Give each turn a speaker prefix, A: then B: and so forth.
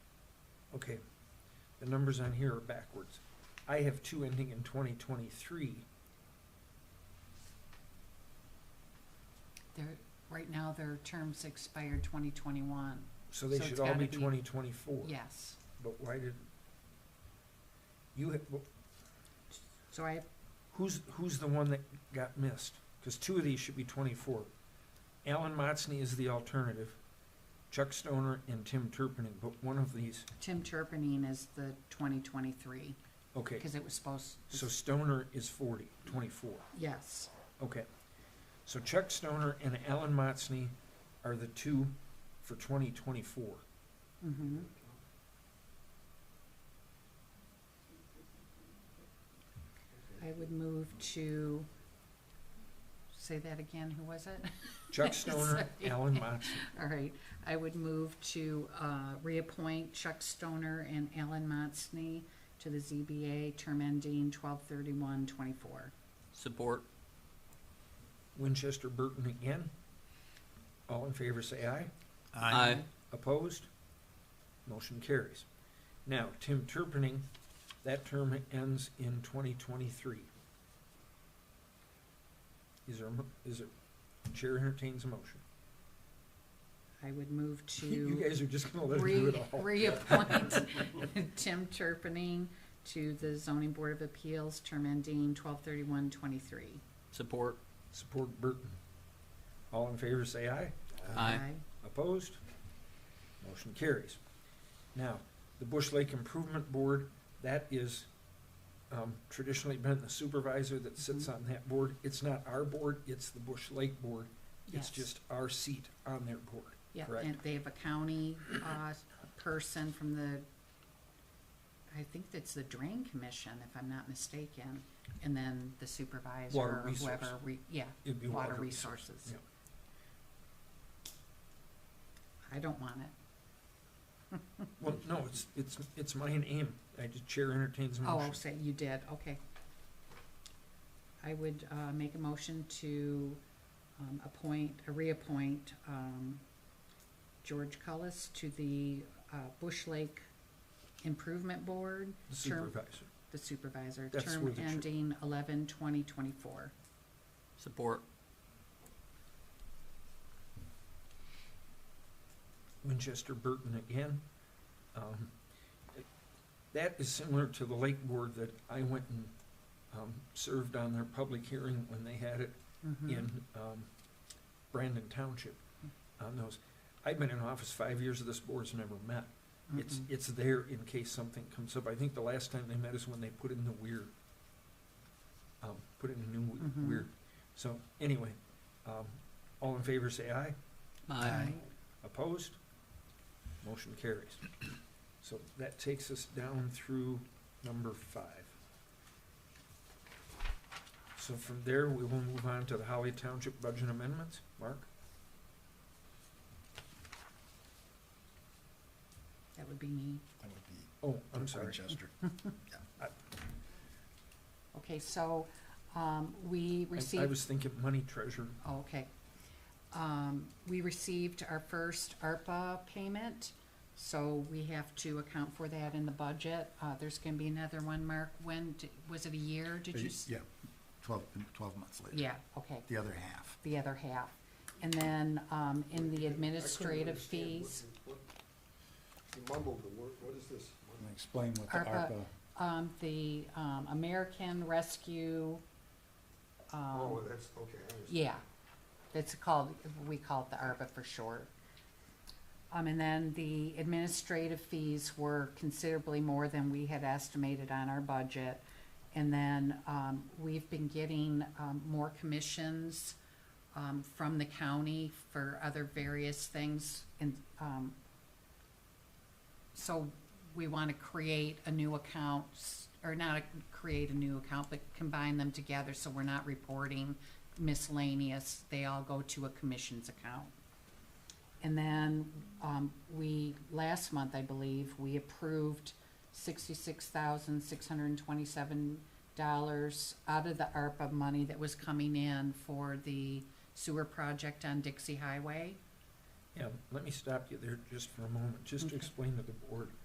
A: Okay, the numbers on here are backwards. I have two ending in twenty twenty-three.
B: They're, right now, their terms expired 2021.
A: So they
B: So
A: should
B: it's
A: all
B: gotta
A: be
B: be-
A: twenty twenty-four.
B: Yes.
A: But why did, you, ha- well,
B: So I,
A: who's, who's the one that got missed? Because two of these should be twenty-four. Alan Motzni is the alternative, Chuck Stoner and Tim Turpinning, but one of these,
B: Tim Turpinning is the 2023,
A: okay,
B: because it was supposed,
A: so Stoner is 40, 24.
B: yes.
A: okay. So Chuck Stoner and Alan Motzni are the two for twenty twenty-four.
B: Mm-hmm. I would move to, say that again, who was it?
A: Chuck Stoner,
B: Sorry.
A: Alan Motzni.
B: All right, I would move to uh, reappoint Chuck Stoner and Alan Motzni to the ZBA, term ending 12/31/24.
C: Support.
A: Winchester Burton again. All in favor say aye.
C: Aye.
A: Opposed? Motion carries. Now, Tim Turpinning, that term ends in twenty twenty-three. Is there, a mo- is there, Chair entertains a motion.
B: I would move to.
A: You guys are just gonna let her do
B: Re-
A: it all.
B: Reappoint Tim Turpinning to the zoning board of appeals, term ending twelve thirty-one twenty-three.
C: Support.
A: Support Burton. All in favor say aye.
C: Aye.
A: Opposed? Motion carries. Now, the Bush Lake Improvement Board, that is um, traditionally been the supervisor that sits
B: Mm-hmm.
A: on that board. It's not our board, it's the Bush Lake Board. It's
B: Yes.
A: just our seat on their board.
B: Yeah,
A: correct.
B: and they have a county, uh, person from the, I think it's the drain commission, if I'm not mistaken, and then the supervisor
A: Water
B: or
A: resource.
B: whoever, re- yeah,
A: It'd be
B: water
A: resource.
B: resources. I don't want it.
A: Well, no, it's, it's, it's mine aim. I just chair entertains a
B: Oh,
A: motion.
B: I'll say you did, okay. I would, uh, make a motion to, um, appoint, uh, reappoint, um, George Cullis to the, uh, Bush Lake Improvement Board,
A: The
B: term-
A: supervisor.
B: the supervisor,
A: That's where
B: term
A: the tr-
B: ending eleven twenty twenty-four.
C: Support.
A: Winchester Burton again. Um, That is similar to the Lake Board that I went and um, served on their public hearing when they had it
B: Hmm.
A: in um, Brandon Township on those. I've been in office five years of this board's never met. It's, it's there in case something comes up. I think the last time they met is when they put in the weir. Um, Put in a new we-
B: Mhm.
A: weir. So anyway, um, all in favor say aye.
C: Aye.
A: Opposed? Motion carries. So that takes us down through number five. So from there, we will move on to the Holly Township budget amendments. Mark?
B: That would be me.
D: That would be
A: Oh, I'm sorry.
D: Winchester.
B: Okay, so, um, we
A: I-
B: received.
A: I was thinking money treasure.
B: Oh, Okay. Um, we received our first ARPA payment, so we have to account for that in the budget. Uh, there's gonna be another one, Mark, when, d- was it a year, did you? s-
D: Uh, Yeah, twelve, twelve months later.
B: Yeah, okay,
D: The other half.
B: the other half. And then, um, in the administrative fees,
E: You mumbled the word, what is this?
B: Um,
D: Let me Explain what the
B: ARPA.
D: ARPA,
B: um, the, um, American Rescue, um,
E: Oh, that's, okay, I understand.
B: Yeah, it's called, we call it the ARPA for short. Um, and then the administrative fees were considerably more than we had estimated on our budget. And then, um, we've been getting, um, more commissions, um, from the county for other various things and, um, so we want to create a new account, s- or not a- create a new account, but combine them together so we're not reporting miscellaneous. They all go to a commissions account. And then, um, we, last month, I believe, we approved sixty-six thousand, six hundred and twenty-seven dollars out of the ARPA money that was coming in for the sewer project on Dixie Highway.
A: Yeah, let me stop you there just for a moment, just to
B: Okay.
A: explain to the board.